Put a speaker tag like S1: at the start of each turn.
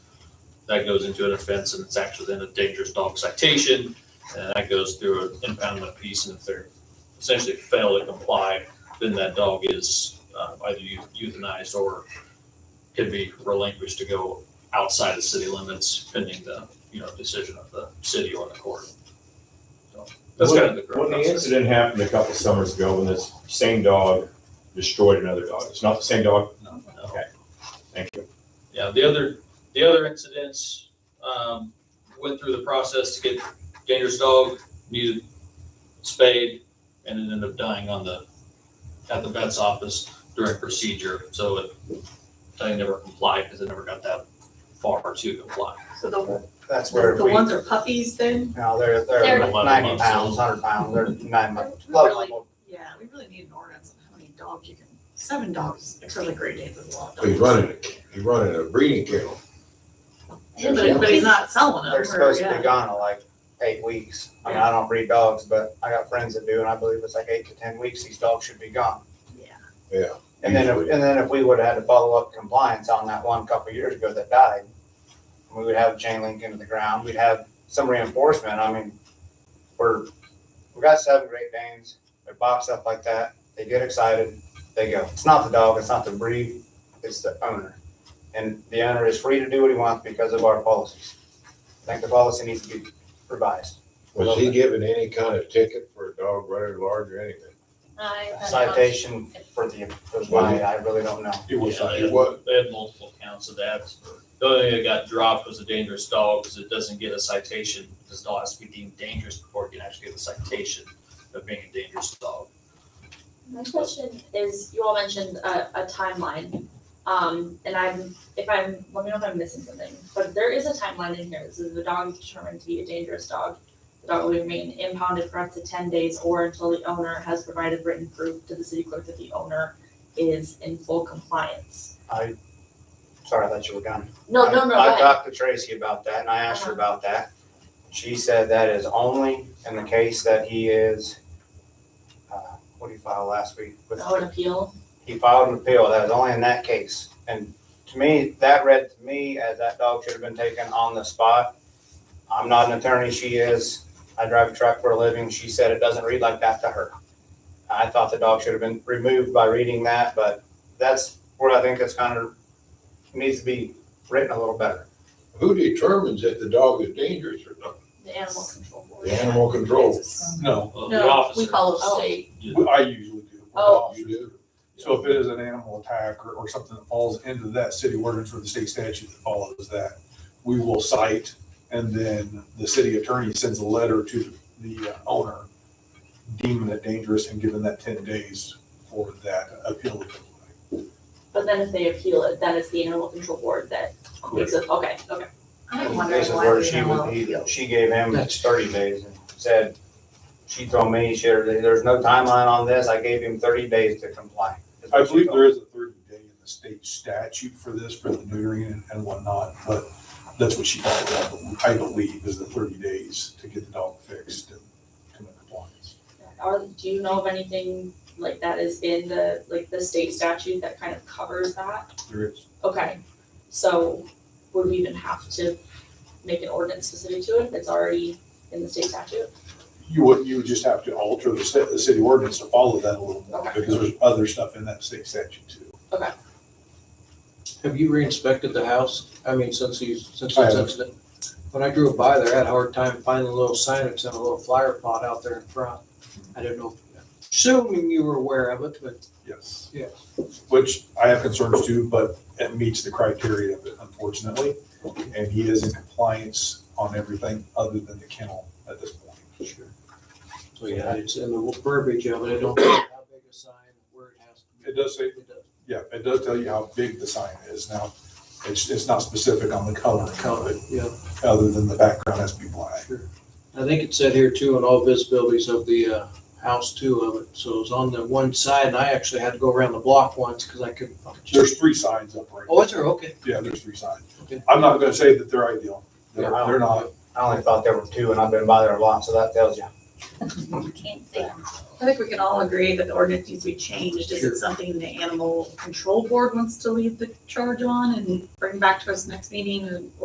S1: That goes into an offense and it's actually then a dangerous dog citation. And that goes through an impoundment piece. And if they're essentially fail to comply, then that dog is uh, either eu- euthanized or could be relinquished to go outside the city limits pending the, you know, decision of the city or the court. So That's kind of the.
S2: When
S1: current
S2: the
S1: process.
S2: incident happened a couple summers ago, when this same dog destroyed another dog, it's not the same dog?
S1: No, no.
S2: Okay, thank you.
S1: Yeah, the other, the other incidents, um, went through the process to get dangerous dog, needed spayed, and it ended up dying on the, at the vet's office during procedure, so it, they never complied, because it never got that far to comply.
S3: So the,
S4: That's where
S3: the
S4: we,
S3: ones are puppies then?
S4: now they're,
S3: They're-
S4: they're
S1: Eleven
S4: ninety
S1: months
S4: pounds,
S1: old.
S4: hundred pounds, they're nine months.
S3: We
S4: Love
S3: really-
S4: level.
S3: Yeah, we really need an ordinance on how many dogs you can, seven dogs, it's really great day for the law.
S5: Oh, He's running, he's running a breeding kennel.
S3: But, but he's not selling them.
S4: They're
S3: or-
S4: supposed to
S3: yeah.
S4: be gone in like eight weeks. I mean, I don't breed dogs, but I got friends that do, and I believe it's like eight to ten weeks, these dogs should be gone.
S3: Yeah.
S5: Yeah.
S4: And then, if
S5: Usually.
S4: and then if we would have had to follow up compliance on that one couple years ago that died, we would have chain link into the ground, we'd have some reinforcement, I mean, we're, we got seven Great Danes, they're boxed up like that, they get excited, they go. It's not the dog, it's not the breed, it's the owner. And the owner is free to do what he wants because of our policies. I think the policy needs to be revised.
S5: Was he given any kind of ticket for a dog running large or anything?
S6: I- I-
S4: Citation for the, for why, I really don't know.
S1: It was.
S5: He was,
S1: They had multiple counts of that. The only thing that got dropped was a dangerous dog, because it doesn't get a citation, because dog has to be deemed dangerous before it can actually get a citation of being a dangerous dog.
S6: My question is, you all mentioned a, a timeline, um, and I'm, if I'm, let me know if I'm missing something, but there is a timeline in here, this is the dog is determined to be a dangerous dog. The dog will remain impounded for up to ten days or until the owner has provided written proof to the city clerk that the owner is in full compliance.
S4: I, sorry, I thought you were done.
S6: No, no, no, go
S4: I- I
S6: ahead.
S4: talked to Tracy about that and I asked her
S6: Uh-huh.
S4: about that. She said that is only in the case that he is, uh, what did he file last week? With-
S6: Oh, an appeal,
S4: He filed an appeal, that was only in that case. And to me, that read to me as that dog should have been taken on the spot. I'm not an attorney, she is. I drive a truck for a living. She said it doesn't read like that to her. I thought the dog should have been removed by reading that, but that's where I think it's kind of, needs to be written a little better.
S5: who determines if the dog is dangerous or not?
S6: the animal control board.
S5: The animal control.
S6: It's-
S7: No,
S1: Well, the
S3: No, we
S1: officer-
S3: follow
S6: Oh.
S3: state,
S7: we- I usually do. We're
S6: Oh.
S5: You
S7: officers.
S5: do.
S7: So if it is an animal attack or, or something that falls into that city ordinance or the state statute that follows that, we will cite, and then the city attorney sends a letter to the uh, owner deeming it dangerous and giving that ten days for that appeal.
S6: But then if they appeal it, then it's the animal control board that makes it, okay, okay.
S3: I'm
S4: This
S3: wondering
S4: is
S3: why
S4: where
S3: we
S4: she
S3: don't
S4: would, he,
S3: appeal.
S4: she gave him thirty days and said, she told me, she, there's no timeline on this, I gave him thirty days to comply. is what
S7: I
S4: she
S7: believe
S4: told me.
S7: there is a thirty day in the state statute for this, for the neutering and- and whatnot, but that's what she called it, I believe, is the thirty days to get the dog fixed and come into compliance.
S6: Are, do you know of anything like that is in the, like the state statute that kind of covers that?
S7: There is.
S6: Okay, so would we even have to make an ordinance specific to it if it's already in the state statute?
S7: You would, you would just have to alter the city, the city ordinance to follow that a little more,
S6: Okay.
S7: because there's other stuff in that state statute too.
S8: Have you re-inspected the house? I mean, since he's, since
S7: I
S8: this
S7: have.
S8: incident? When I drove by there, I had a hard time finding a little signage and a little flyer plot out there in front. I didn't know, assuming you were aware of it, but
S7: Yes.
S8: Yeah.
S7: Which I have concerns too, but it meets the criteria of it unfortunately, and he is in compliance on everything other than the kennel at this point. Sure.
S8: so Oh, yeah, it's in the verbiage of it. I don't know how big a sign, where it has to be.
S7: It does say
S8: It does.
S7: Yeah, it does tell you how big the sign is. Now, it's, it's not specific on the color of it,
S8: Yeah,
S7: other than the background has to be black.
S8: I think it said here too, on all visibilities of the, uh, house too of it. So it was on the one side and I actually had to go around the block once because I couldn't. find it.
S7: There's three signs up right
S8: Oh, is there? Okay.
S7: Yeah, there's three signs.
S8: Okay.
S7: I'm not gonna say that they're ideal. They're,
S4: Yeah, I don't-
S7: they're not.
S4: I only thought there were two and I've been by there a lot, so that tells you.
S3: I think we can all agree that the ordinance needs to be changed, is
S8: Sure.
S3: it something the animal control board wants to lead the charge on and bring back to us next meeting, and-